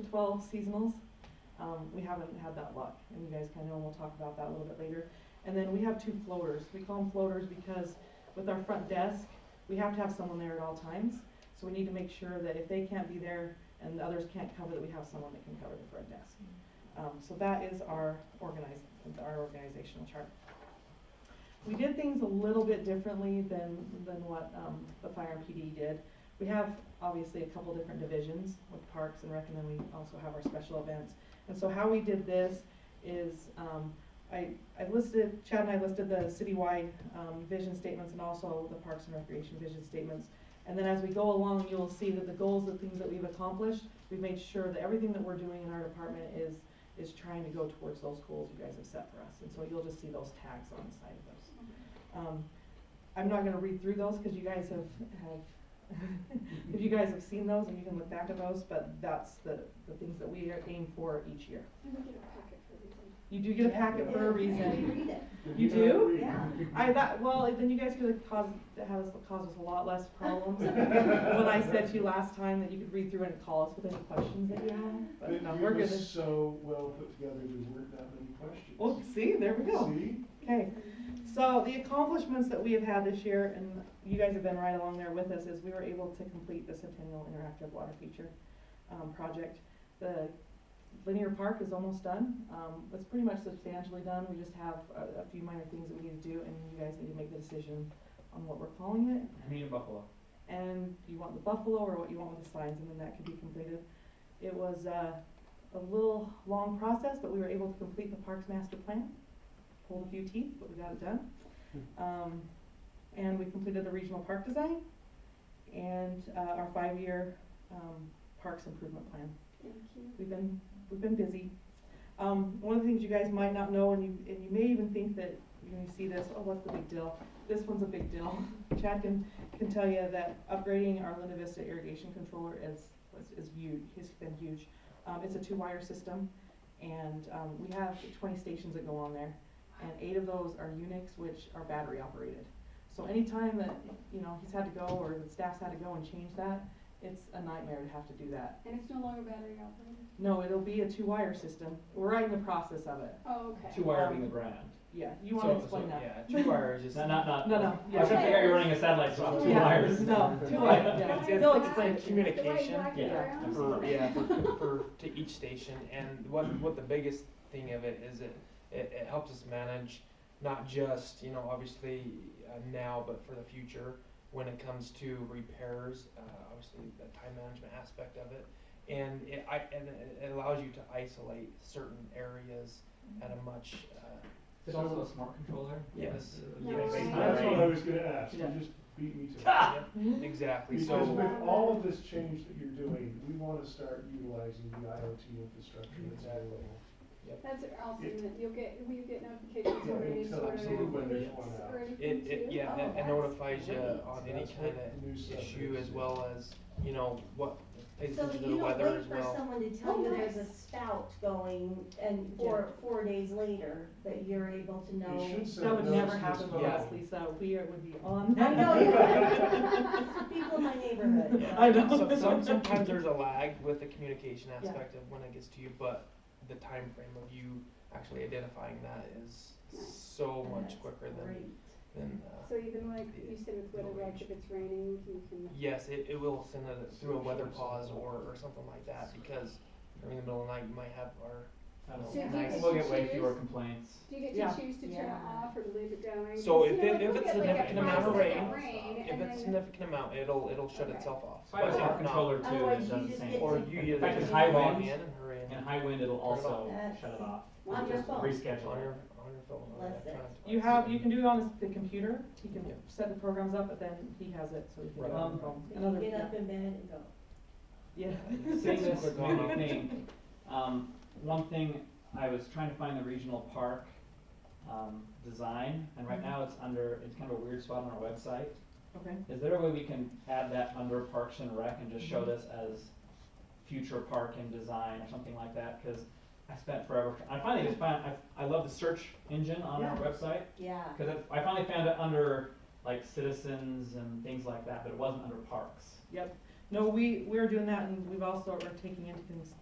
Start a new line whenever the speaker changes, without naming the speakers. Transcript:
twelve seasonals. Um, we haven't had that luck, and you guys kinda know, and we'll talk about that a little bit later. And then we have two floaters. We call them floaters because with our front desk, we have to have someone there at all times. So we need to make sure that if they can't be there and the others can't cover, that we have someone that can cover the front desk. Um, so that is our organize, our organizational chart. We did things a little bit differently than, than what, um, the fire and PD did. We have obviously a couple different divisions with parks and rec, and then we also have our special events. And so how we did this is, um, I, I listed, Chad and I listed the citywide, um, vision statements and also the parks and recreation vision statements. And then as we go along, you'll see that the goals, the things that we've accomplished, we've made sure that everything that we're doing in our department is, is trying to go towards those goals you guys have set for us. And so you'll just see those tags on the side of those. Um, I'm not gonna read through those, cause you guys have, have, if you guys have seen those and you can look back at those, but that's the, the things that we are aim for each year.
You would get a packet for everything.
You do get a packet for a
And
reason.
we read it.
You do?
Yeah.
I, that, well, then you guys could have caused, that has caused us a lot less problems when I said to you last time that you could read through and call us with any questions that you have,
But
but no,
you
we're
were
good.
so well put together, there weren't that many questions.
Well, oh, see, there we go.
See?
Okay, so the accomplishments that we have had this year, and you guys have been right along there with us, is we were able to complete the Centennial Interactive Water Feature, um, project. The linear park is almost done, um, it's pretty much substantially done, we just have a, a few minor things that we need to do, and you guys need to make the decision on what we're calling it,
Me and Buffalo.
and you want the buffalo or what you want with the signs, and then that could be completed. It was uh, a little long process, but we were able to complete the parks master plan. Pulled a few teeth, but we got it done. Um, and we completed the regional park design and uh, our five-year um, parks improvement plan.
Thank you.
We've been, we've been busy. Um, one of the things you guys might not know, and you, and you may even think that when you see this, oh, what's the big deal? This one's a big deal. Chad can, can tell you that upgrading our Linda Vista irrigation controller is, was- is huge, has been huge. Um, it's a two-wire system, and, um, we have twenty stations that go on there, and eight of those are Unix, which are battery operated. So anytime that, you know, he's had to go, or the staff's had to go and change that, it's a nightmare to have to do that.
And it's no longer battery operated?
No, it'll be a two-wire system. We're right in the process of it.
Oh, okay.
Two wire
Um,
being the brand.
Yeah, you wanna
So-
explain
so,
that?
Yeah, two wire is just, not, not, not.
No, no,
I was
yeah.
trying to figure out you're running a satellite so two
Yeah,
wires.
No, two wire, yeah,
Yeah.
they'll explain it to you.
communication.
Yeah.
For, yeah, for, for, to each station, and what, what the biggest thing of it is it, it, it helps us manage not just, you know, obviously uh, now, but for the future, when it comes to repairs, uh, obviously the time management aspect of it. And it, I, and it it allows you to isolate certain areas at a much, uh,
Is it also a smart controller?
Yes.
Yeah,
Yes.
based on
That's what I
range.
was gonna ask, you
Yeah.
just beat me to it.
exactly, so.
Because with all of this change that you're doing, we wanna start utilizing the IoT infrastructure that's available.
That's awesome, that you'll get, will you get notifications
Yeah,
or any
until-
sort of?
absolutely when there's one out.
Or anything
It, it,
too?
yeah,
Oh,
it- it
that's-
notifies you
great.
on any
That's
kind
what
of
the new stuff
issue
is.
as well as, you know, what, plays
So
into the
you don't
weather
wait
as
for
well.
someone to tell
Oh,
you there's a
nice.
spout going and four, four days later that you're able to
You
know.
should send
That would
notice
never
to
happen to
staff.
us, Lisa. We are, would be on
I
that.
know, yeah. people in my neighborhood.
Yeah.
I know.
So- some- sometimes there's a lag with the communication
Yeah.
aspect of when it gets to you, but the time frame of you actually identifying that is so much quicker than,
Great.
than, uh,
So even like you said with weather, like if it's raining, you can.
yes, it, it will send it through a weather pause or, or something like that, because during the middle of the night, you might have, or
I don't
So
know.
you get
We'll get way
to
fewer
choose?
complaints.
Do you get
Yeah.
to choose to turn it
Yeah.
off or to leave it going?
So
Because,
if
you know,
it-
like,
if
we'll
it's
get, like, a
significant amount of
five-second
rain,
rain,
If
and
it's
then-
significant amount, it'll, it'll shut
Okay.
itself off.
So I have a
But
smart
if not-
controller too that
Otherwise,
does
you
the
just
same.
get
Or
to-
you
In
either
fact,
just
in high
log
winds-
in and hurry in.
In high wind, it'll also
That's-
shut it off.
On your
Just
phone.
On
Reschedule
your,
it.
on your phone. or
Less than.
electronic
You have,
device.
you can do it on his- the computer. He can
Yeah.
set the programs up, but then he has it, so he can do it
Right.
on the phone.
You
Another,
can get up
yeah.
in bed and go.
Yeah.
Seeing this new thing, um, one thing, I was trying to find the regional park, um, design, and right now it's under, it's kind of a weird spot on our website.
Okay.
Is there a way we can add that under Parks and Rec and just show this as future park and design or something like that? Cause I spent forever, I finally just found, I, I love the search engine on our
Yeah.
website,
Yeah.
cause it- I finally found it under like citizens and things like that, but it wasn't under parks.
No, we, we're doing that and we've also, we're taking into cons-